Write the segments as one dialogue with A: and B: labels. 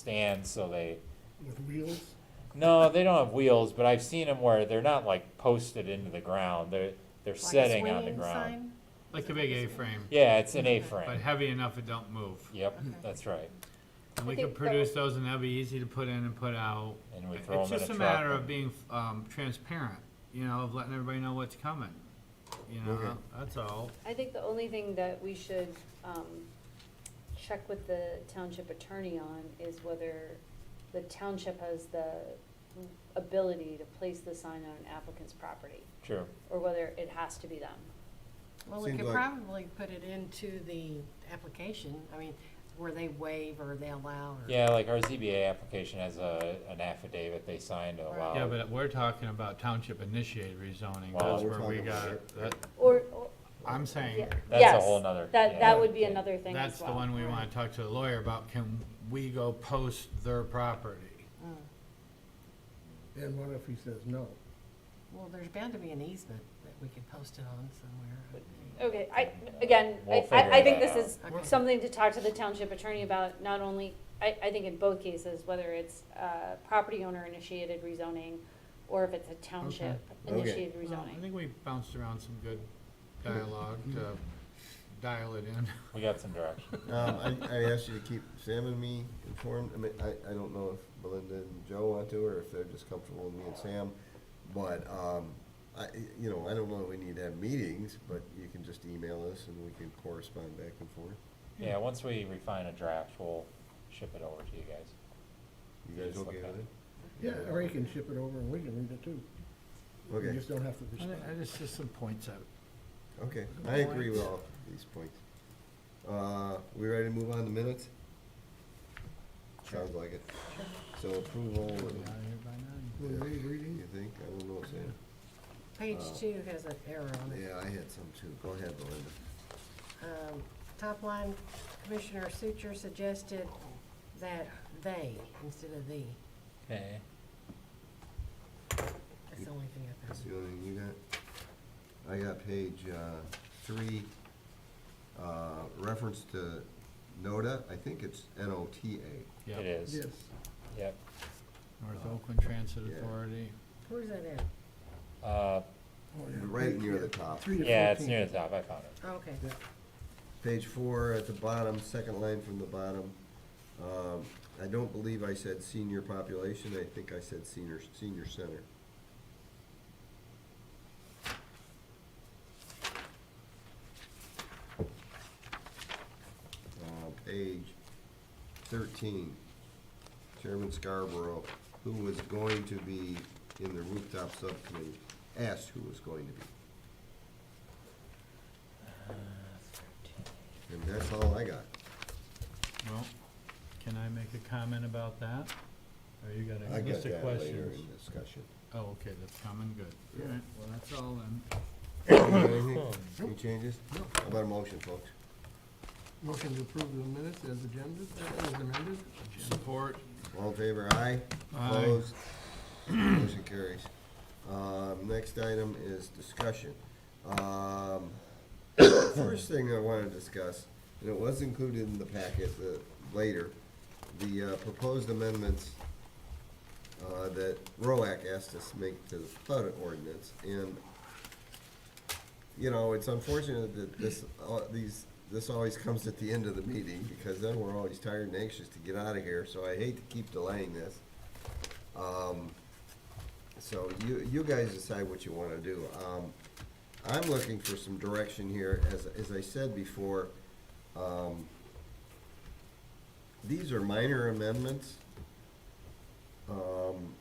A: stands, so they,
B: with wheels.
A: no, they don't have wheels, but I've seen them where they're not like posted into the ground, they're, they're
C: Like a
A: setting on the
C: swinging
A: ground.
C: sign?
D: Like the big A-frame,
A: Yeah, it's an
D: but
A: A-frame,
D: heavy enough it don't move.
A: yep,
C: Okay.
A: that's right,
D: And
E: I
D: we could
E: think that-
D: produce those and that'd be easy to put in and put out.
A: and we throw
D: It's
A: them in a
D: just
A: truck.
D: a matter of
A: and-
D: being, um, transparent, you know, of letting everybody know what's coming, you know,
B: Okay.
D: that's all.
E: I think the only thing that we should um, check with the township attorney on is whether the township has the ability to place the sign on an applicant's property,
A: True,
E: or whether it has to be them.
C: Well, we
B: Seems
C: could
B: like-
C: probably put it into the application, I mean, where they waive or they allow or.
A: yeah, like our ZBA application has a, an affidavit they signed to
C: Right.
A: allow.
D: Yeah, but we're talking about township initiated rezoning,
A: Well,
D: that's
B: we're
D: where we
B: talking
D: got,
B: about-
D: that,
E: Or, or-
D: I'm saying,
E: yeah,
A: That's a
E: yes,
A: whole nother-
E: that,
A: yeah.
E: that would be another thing as
D: that's the
E: well.
D: one we
C: Right.
D: wanna talk to the lawyer about, can we go post their property?
C: Mm.
B: And what if he says no?
C: Well, there's bound to be an easement that we could post it on somewhere.
E: Okay, I, again,
A: We'll
E: I, I
A: figure
E: I think
A: that
E: this is
C: out. Okay.
E: something to talk to the township attorney about, not only, I, I think in both cases, whether it's, uh, property owner initiated rezoning, or if it's a township
B: Okay.
E: initiated
D: Well, I
E: rezoning.
D: think we bounced around some good dialogue to dial it in.
A: We got some direction,
F: Um, I, I asked you to keep Sam and me informed. I mean, I, I don't know if Belinda and Joe want to, or if they're just comfortable with me and Sam. But, um, I, you know, I don't know that we need to have meetings, but you can just email us and we can correspond back and forth.
A: yeah, once we refine a draft, we'll ship it over to you guys.
F: You guys
A: Just
F: okay
A: look at
F: with
A: it.
F: it?
B: Yeah, or he can ship it over and we can read it too. You
F: Okay,
B: just don't have to
D: I
B: respond.
D: I just, just some points out.
F: okay. I agree with all these points. Uh, we ready to move on to minutes? Sounds like it. So approval,
D: We'll
F: of-
D: be out of here by nine.
B: Will they reading?
F: you think? I don't know, Sam.
C: Page
F: Uh,
C: two has an error on it.
F: Yeah, I had some too. Go ahead, Belinda.
C: Um, Top line, Commissioner Suture suggested that they instead of thee.
A: Okay.
C: That's the only thing I
F: That's
C: found.
F: the only thing you got? I got page, uh, three, uh, reference to NOTA, I think it's N-O-T-A.
D: Yeah.
A: It is,
B: Yes.
A: yep,
D: North Oakland Transit
F: Yeah.
D: Authority.
C: Where's that at?
A: uh,
B: Oh, yeah.
F: Right near the top.
B: Three to
A: yeah, it's
B: 14.
A: near the top, I found it.
C: Oh, Okay.
B: Yeah.
F: Page four at the bottom, second line from the bottom. Um, I don't believe I said senior population, I think I said senior, senior center. Uh, page thirteen, Chairman Scarborough, who was going to be in the rooftop subcommittee, asked who was going to be, and that's all I got.
D: Well, can I make a comment about that? Or you got
F: I
D: a
F: get
D: list of
F: that later
D: questions?
F: in discussion.
D: Oh, okay, that's coming, good.
F: Yeah.
D: All right, well, that's all then.
F: Anything? Any changes?
B: No.
F: How about a motion, folks?
B: Motion to approve the minutes as agenda, as amended.
D: Support,
F: All in favor, aye?
D: Aye.
F: Opposed? Motion carries. Um, next item is discussion. Um, first thing I wanna discuss, and it was included in the packet, the, later, the, uh, proposed amendments uh, that ROAC asked us to make to the flood ordinance, and you know, it's unfortunate that this, uh, these, this always comes at the end of the meeting, because then we're always tired and anxious to get out of here, so I hate to keep delaying this. Um, so you, you guys decide what you wanna do. Um, I'm looking for some direction here, as, as I said before, um, these are minor amendments. Um,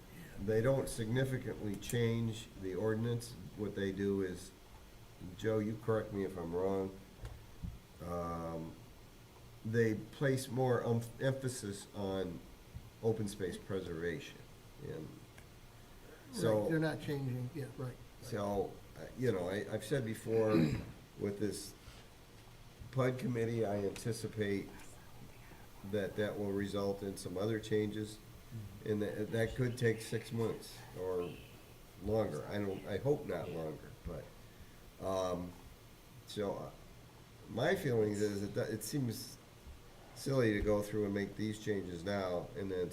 F: they don't significantly change the ordinance. What they do is, Joe, you correct me if I'm wrong. Um, they place more umph- emphasis on open space preservation. And so.
B: Right, they're not changing, yeah, right.
F: So, uh, you know, I, I've said before, with this PUD committee, I anticipate that that will result in some other changes, and that, that could take six months or longer. I don't, I hope not longer, but, um, so, uh, my feeling is it, do- it seems silly to go through and make these changes now and then